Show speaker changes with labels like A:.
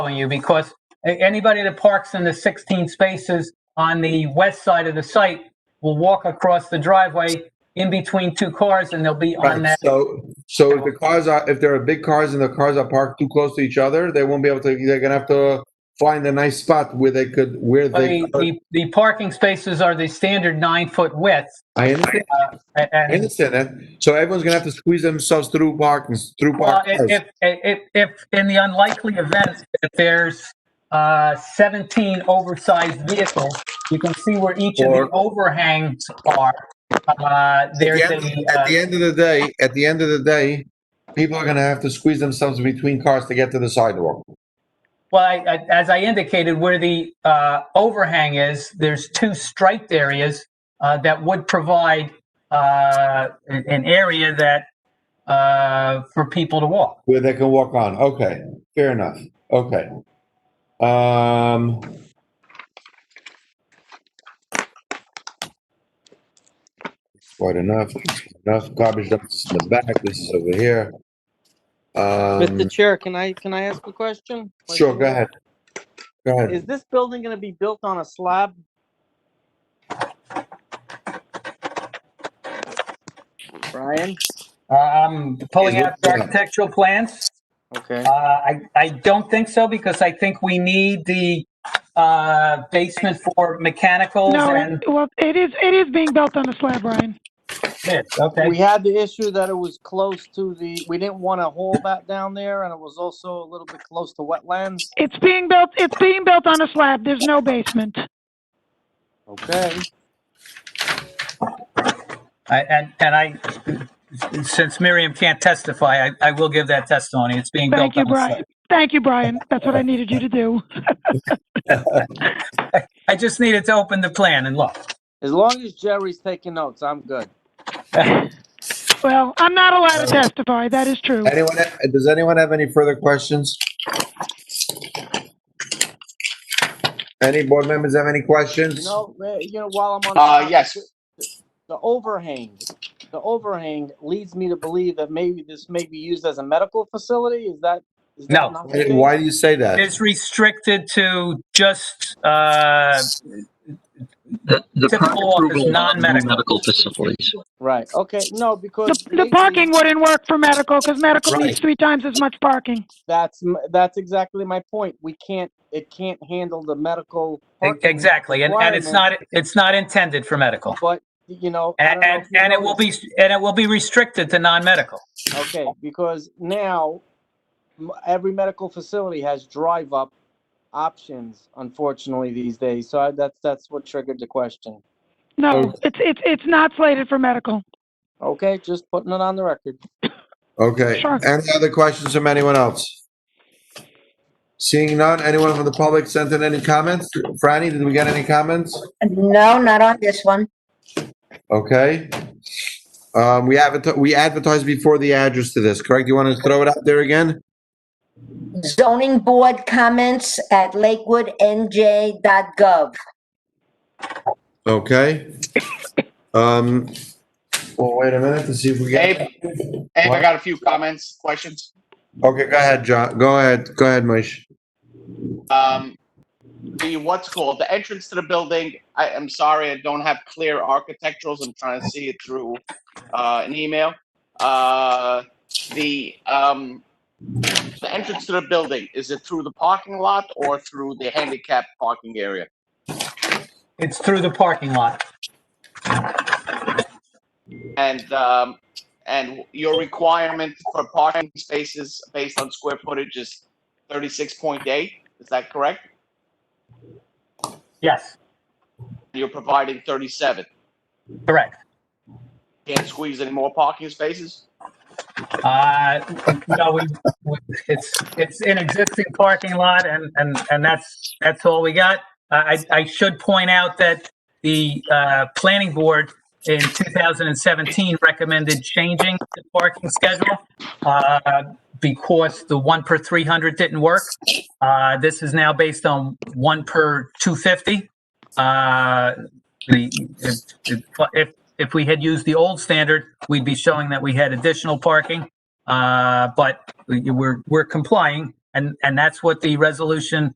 A: following you because a- anybody that parks in the 16 spaces on the west side of the site will walk across the driveway in between two cars and they'll be on
B: Right,
A: that.
B: so, so if the cars are, if there are big cars and the cars are parked too close to each other, they won't be able to, they're gonna have to find a nice spot where they could, where they.
A: The, the, the parking spaces are the standard nine foot width.
B: I understand,
A: a-
B: I
A: And
B: understand that. So everyone's gonna have to squeeze themselves through parking, through
A: well,
B: parking.
A: if, if, if, if in the unlikely event that there's uh, 17 oversized vehicles, you can see where each of the
B: Or-
A: overhangs are. Uh,
B: At
A: there's a,
B: the end-
A: uh,
B: At the end of the day, at the end of the day, people are gonna have to squeeze themselves between cars to get to the sidewalk.
A: Well, I, I, as I indicated, where the uh, overhang is, there's two striped areas uh, that would provide uh, an an area that uh, for people to walk.
B: Where they can walk on, okay, fair enough, okay. Um. Quite enough, enough garbage dumps in the back, this is over here. Um,
C: Mr. Chair, can I, can I ask a question? Like,
B: sure, go ahead. Go ahead,
C: Is this building gonna be built on a slab? Brian?
A: Uh, I'm pulling
B: Is it-
A: out the architectural plans.
C: Okay.
A: Uh, I, I don't think so because I think we need the uh, basement for mechanicals
D: No,
A: and
D: it- well, it is, it is being built on a slab, Ryan.
A: this. Okay.
C: We had the issue that it was close to the, we didn't want to hole that down there and it was also a little bit close to wetlands.
D: It's being built, it's being built on a slab. There's no basement.
C: Okay.
A: I, and and I, since Miriam can't testify, I, I will give that testimony. It's being built.
D: Thank you,
A: on the site.
D: Brian. Thank you, Brian. That's what I needed you to do.
A: I just needed to open the plan and look.
C: As long as Jerry's taking notes, I'm good.
D: Well, I'm not allowed to testify. That is true.
B: anyone, ha- does anyone have any further questions? Any board members have any
C: You
B: questions?
C: know, uh, you know, while I'm on. the
E: Uh,
C: topic,
E: yes,
C: The overhang, the overhang leads me to believe that maybe this may be used as a medical facility. Is that? is that
A: No.
C: not the
B: Why-
C: case?
B: Why do you say that?
A: It's restricted to just uh,
F: The, the
A: Typical
F: prior
A: office,
F: approval of
A: non-medical.
F: medical facilities.
C: Right, okay, no, because.
D: The, the
C: lately,
D: parking wouldn't work for medical because medical
B: Right.
D: needs three times as much parking.
C: That's, m- that's exactly my point. We can't, it can't handle the medical.
A: e-
C: parking,
A: exactly, and, and it's not it's not intended for medical,
C: But, you know. I
A: and
C: don't know
A: and,
C: if you
A: and it will be and it will be restricted to non-medical.
C: noticed. Okay, because now m- every medical facility has drive-up options, unfortunately, these days. So I- that's, that's what triggered the question.
D: No,
B: Oh.
D: it's, it's, it's not slated for medical.
C: Okay, just putting it on the record.
B: Okay,
D: Sure.
B: any other questions from anyone else? Seeing none, anyone from the public sent in any comments? Franny, did we get any comments?
G: No, not on this one.
B: Okay. Um, we advertised, we advertised before the address to this, correct? You want to throw it out there again?
G: Zoning board comments at lakewoodnj.gov.
B: Okay. Um, well, wait a minute to see if we
E: Abe,
B: get,
E: Abe,
B: What?
E: I got a few comments, questions.
B: okay, go ahead, John, go ahead, go ahead, Moish.
E: Um, the, what's called, the entrance to the building, I am sorry, I don't have clear architecturals, I'm trying to see it through, uh, an email. Uh, the, um, the entrance to the building, is it through the parking lot or through the handicap parking area?
A: It's through the parking lot.
E: And, um, and your requirement for parking spaces based on square footage is thirty-six point eight, is that correct?
A: Yes,
E: You're providing thirty-seven.
A: correct.
E: Can't squeeze any more parking spaces?
A: Uh, no, we, we, it's it's an existing parking lot, and and and that's that's all we got. Uh, I I I should point out that the uh, planning board in 2017 recommended changing the parking schedule uh, because the one per 300 didn't work. Uh, this is now based on one per 250. Uh, the if, if if we had used the old standard, we'd be showing that we had additional parking. Uh, but we- we're, we're complying And, and that's what the resolution